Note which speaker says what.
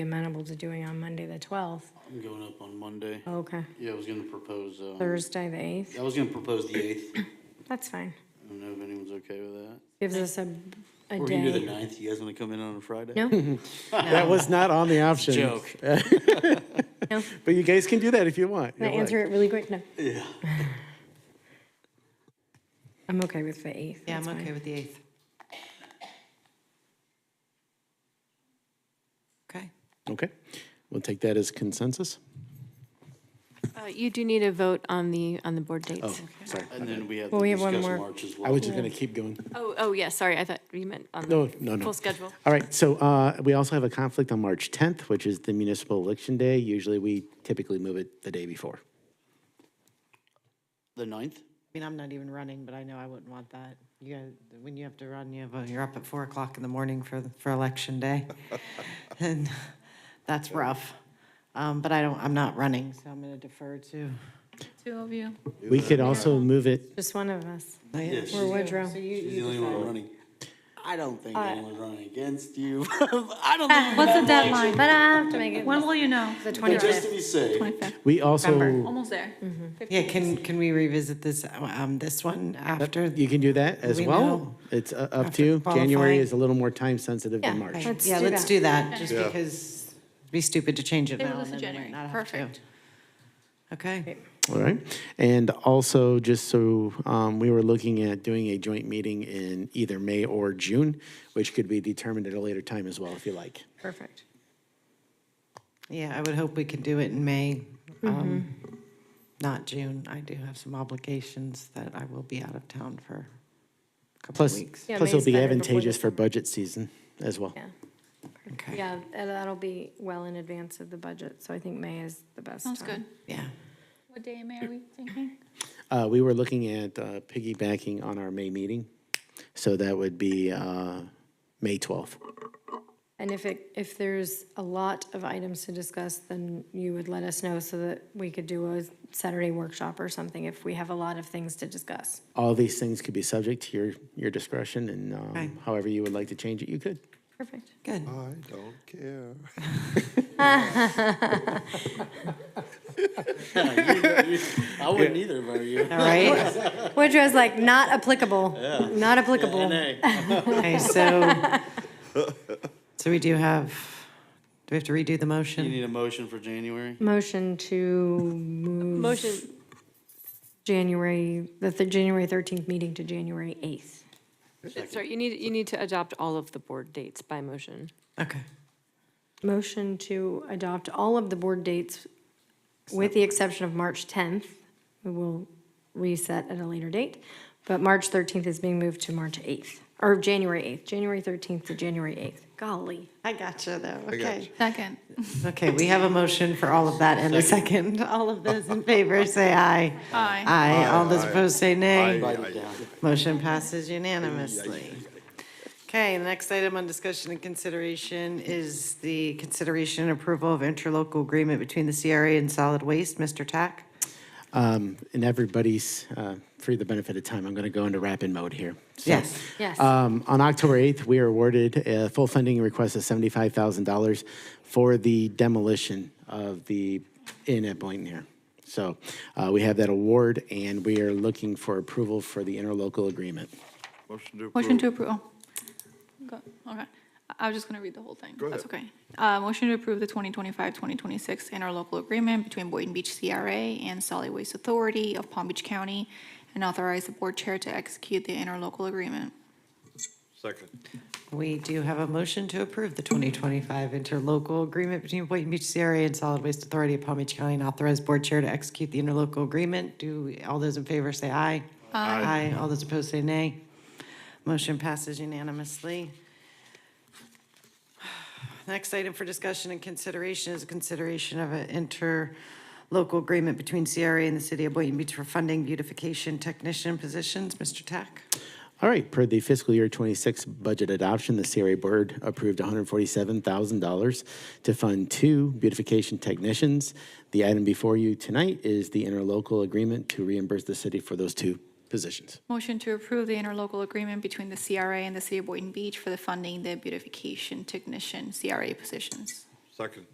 Speaker 1: amenable to doing on Monday, the 12th.
Speaker 2: I'm going up on Monday.
Speaker 1: Okay,
Speaker 2: Yeah, I was gonna propose, um,
Speaker 1: Thursday, the 8th.
Speaker 2: I was gonna propose the eighth. I
Speaker 1: That's fine.
Speaker 2: don't know if anyone's okay with that.
Speaker 1: Gives us a, a
Speaker 2: Or we can do the
Speaker 1: day.
Speaker 2: ninth. You guys wanna come in on a Friday?
Speaker 1: No?
Speaker 3: That was not on the option.
Speaker 2: Joke.
Speaker 1: No?
Speaker 3: But you guys can do that if you want.
Speaker 1: Can I
Speaker 3: You're
Speaker 1: answer
Speaker 3: like-
Speaker 1: it really quick? No.
Speaker 2: Yeah.
Speaker 1: I'm okay with the 8th.
Speaker 4: Yeah, I'm
Speaker 1: That's
Speaker 4: okay
Speaker 1: fine.
Speaker 4: with the 8th. Okay.
Speaker 3: Okay, we'll take that as consensus.
Speaker 5: Uh, You do need a vote on the, on the board dates.
Speaker 3: Sorry.
Speaker 2: And then we have
Speaker 1: Well,
Speaker 2: to
Speaker 1: we have one
Speaker 2: discuss
Speaker 1: more.
Speaker 2: March as well.
Speaker 3: I was just going to keep going.
Speaker 5: Oh, oh, yeah, sorry, I thought you meant on
Speaker 3: No,
Speaker 5: the
Speaker 3: no, no.
Speaker 5: full schedule.
Speaker 3: All right, so uh, we also have a conflict on March 10th, which is the municipal election day. Usually, we typically move it the day before.
Speaker 2: The ninth?
Speaker 4: I mean, I'm not even running, but I know I wouldn't want that. You guys, when you have to run, you have, a- you're up at four o'clock in the morning for, for election day. And that's rough. Um, but I don't, I'm not running, so I'm gonna defer to.
Speaker 5: Two of you.
Speaker 3: We could also move it,
Speaker 1: Just one of us.
Speaker 2: Yes.
Speaker 1: Or Woodrow.
Speaker 2: She's the only one running. I don't
Speaker 1: Uh,
Speaker 2: think anyone's running against you. I don't think,
Speaker 6: What's the deadline?
Speaker 1: But I have to make it
Speaker 6: When will you know?
Speaker 1: the
Speaker 2: but just to
Speaker 1: 25th.
Speaker 2: be safe.
Speaker 3: we also,
Speaker 6: Almost there.
Speaker 4: Yeah, can, can we revisit this, um, this one after?
Speaker 3: you can do that as
Speaker 4: We
Speaker 3: well.
Speaker 4: know.
Speaker 3: It's uh, up to
Speaker 4: After
Speaker 3: you. January
Speaker 4: qualifying.
Speaker 3: is a little more time sensitive
Speaker 1: Yeah,
Speaker 3: than March.
Speaker 1: let's
Speaker 4: Yeah,
Speaker 1: do
Speaker 4: let's
Speaker 1: that.
Speaker 4: do that, just because it'd be stupid to change it
Speaker 6: Table
Speaker 4: now
Speaker 6: this
Speaker 4: and
Speaker 6: in
Speaker 4: then we might
Speaker 6: January.
Speaker 4: not have to.
Speaker 6: Perfect.
Speaker 4: Okay,
Speaker 3: All right. And also, just so um, we were looking at doing a joint meeting in either May or June, which could be determined at a later time as well, if you like.
Speaker 1: Perfect.
Speaker 4: yeah, I would hope we could do it in May, um, not June. I do have some obligations that I will be out of town for a couple of
Speaker 3: Plus,
Speaker 4: weeks.
Speaker 1: Yeah,
Speaker 3: plus it'll
Speaker 1: May's
Speaker 3: be
Speaker 1: better before the
Speaker 3: advantageous for
Speaker 1: summer.
Speaker 3: budget season as well.
Speaker 1: Yeah.
Speaker 4: Okay,
Speaker 1: Yeah, and that'll be well in advance of the budget, so I think May is the best time.
Speaker 6: Sounds good.
Speaker 4: yeah.
Speaker 6: What day, May are we thinking?
Speaker 3: Uh, we were looking at uh, piggybacking on our May meeting, so that would be uh, May 12th.
Speaker 1: And if it, if there's a lot of items to discuss, then you would let us know so that we could do a Saturday workshop or something if we have a lot of things to discuss.
Speaker 3: All these things could be subject to your, your discretion, and um,
Speaker 4: Okay.
Speaker 3: however you would like to change it, you could.
Speaker 1: Perfect.
Speaker 4: Good.
Speaker 7: I don't care.
Speaker 2: I wouldn't either if I were you.
Speaker 4: All right.
Speaker 1: Woodrow's like, not applicable, not applicable.
Speaker 4: Okay, so, so we do have, do we have to redo
Speaker 2: You
Speaker 4: the motion?
Speaker 2: need a motion for January?
Speaker 1: Motion to
Speaker 5: Motion,
Speaker 1: January, the th- January 13th meeting to January 8th.
Speaker 5: sorry, you need, you need to adopt all of the board dates by motion.
Speaker 4: Okay.
Speaker 1: Motion to adopt all of the board dates with the exception of March 10th. We will reset at a later date, but March 13th is being moved to March 8th, or January 8th, January 13th to January 8th. Golly.
Speaker 4: I got you though, okay.
Speaker 6: Second.
Speaker 4: Okay, we have a motion for all of that and a second. All of those in favor, say aye.
Speaker 6: Aye.
Speaker 4: Aye. All those opposed, say nay.
Speaker 7: I-
Speaker 2: Write it down.
Speaker 4: Motion passes unanimously. Okay, the next item on discussion and consideration is the consideration and approval of interlocal agreement between the CRA and solid waste. Mr. Tack?
Speaker 3: Um, and everybody's, uh, for the benefit of time, I'm going to go into rapid mode here. So,
Speaker 4: Yes.
Speaker 1: Yes.
Speaker 3: Um, on October 8th, we are awarded a full funding request of $75,000 for the demolition of the inn at Blakeney. So uh, we have that award, and we are looking for approval for the interlocal agreement.
Speaker 7: Motion to
Speaker 6: Motion
Speaker 7: approve.
Speaker 6: to approve. oh. Go- Okay. I- I was just going to read the whole thing. That's okay. Uh, Motion to approve the 2025-2026 interlocal agreement between Boynton Beach CRA and Solid Waste Authority of Palm Beach County and authorize the board chair to execute the interlocal agreement.
Speaker 7: Second.
Speaker 4: We do have a motion to approve the 2025 interlocal agreement between Boynton Beach CRA and Solid Waste Authority of Palm Beach County and authorize board chair to execute the interlocal agreement. Do, all those in favor say aye. Aye. Aye. All those opposed say nay. Motion passes unanimously. Next item for discussion and consideration is a consideration of an interlocal agreement between CRA and the city of Boynton Beach for funding beautification technician positions. Mr. Tack?
Speaker 3: All right, per the fiscal year 26 budget adoption, the CRA Board approved $147,000 to fund two beautification technicians. The item before you tonight is the interlocal agreement to reimburse the city for those two positions.
Speaker 6: Motion to approve the interlocal agreement between the CRA and the city of Boynton Beach for the funding the beautification technician CRA positions.
Speaker 7: Second.